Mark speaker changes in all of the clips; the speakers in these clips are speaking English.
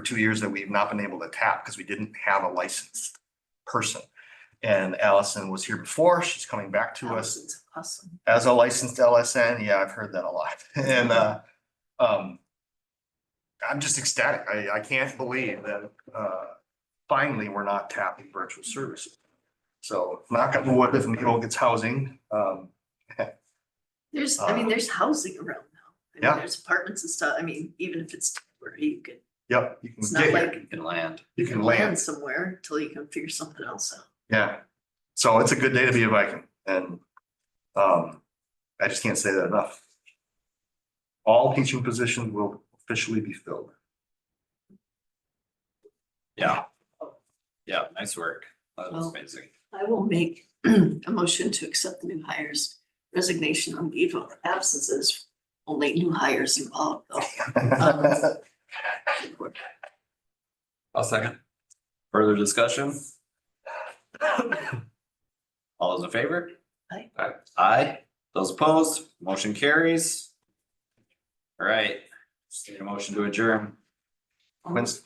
Speaker 1: for two years that we've not been able to tap because we didn't have a licensed person. And Allison was here before. She's coming back to us
Speaker 2: Allison's awesome.
Speaker 1: as a licensed LSN, yeah, I've heard that a lot, and, uh, um. I'm just ecstatic, I, I can't believe that, uh, finally, we're not tapping virtual services. So knock on wood, if Needle gets housing, um,
Speaker 2: There's, I mean,
Speaker 1: Uh,
Speaker 2: there's housing around now. I
Speaker 1: yeah.
Speaker 2: mean, there's apartments and stuff. I mean, even if it's temporary, you could,
Speaker 1: yep, you
Speaker 2: it's
Speaker 1: can
Speaker 2: not
Speaker 1: get, here,
Speaker 2: like you
Speaker 3: can land.
Speaker 1: you can land,
Speaker 2: somewhere until you can figure something else out.
Speaker 1: yeah. So it's a good day to be a Viking, and, um, I just can't say that enough. All teaching positions will officially be filled.
Speaker 3: Yeah. Yeah, nice work. That was
Speaker 2: Well-
Speaker 3: amazing.
Speaker 2: I will make a motion to accept the new hires resignation on leave of absences, only new hires involved though.
Speaker 3: I'll second. Further discussion? All those in favor?
Speaker 2: Aye.
Speaker 3: Aye. Those opposed, motion carries. All right, just need a motion to adjourn.
Speaker 1: Quinn's.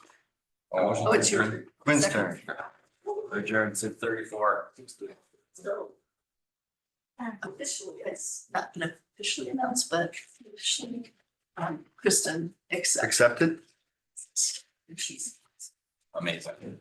Speaker 3: Motion to
Speaker 2: Oh, it's your-
Speaker 3: adjourn.
Speaker 1: Quinn's turn.
Speaker 3: Adjourn six thirty-four.
Speaker 2: Officially, it's not been officially announced, but officially, um, Kristen accepts.
Speaker 1: Accepted?
Speaker 2: She's
Speaker 3: Amazing.